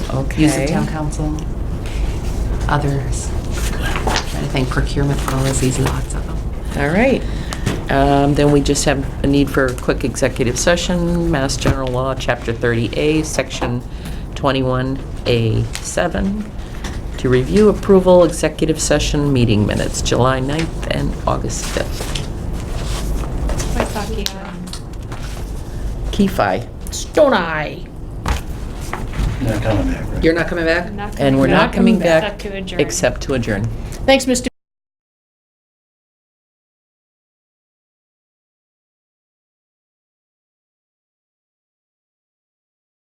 use of Okay. town council, others. Trying to think procurement policies, lots of them. All right. Um, Then we just have a need for a quick executive session, Mass General Law, Chapter 30A, Section 21A7, to review approval, executive session meeting minutes, July 9th and August 5th. Kefi. Stone Eye. Not coming back, right? You're not coming back? Not coming And we're back. not coming Not coming back. back. Except to adjourn. Except to adjourn. Thanks, Mr.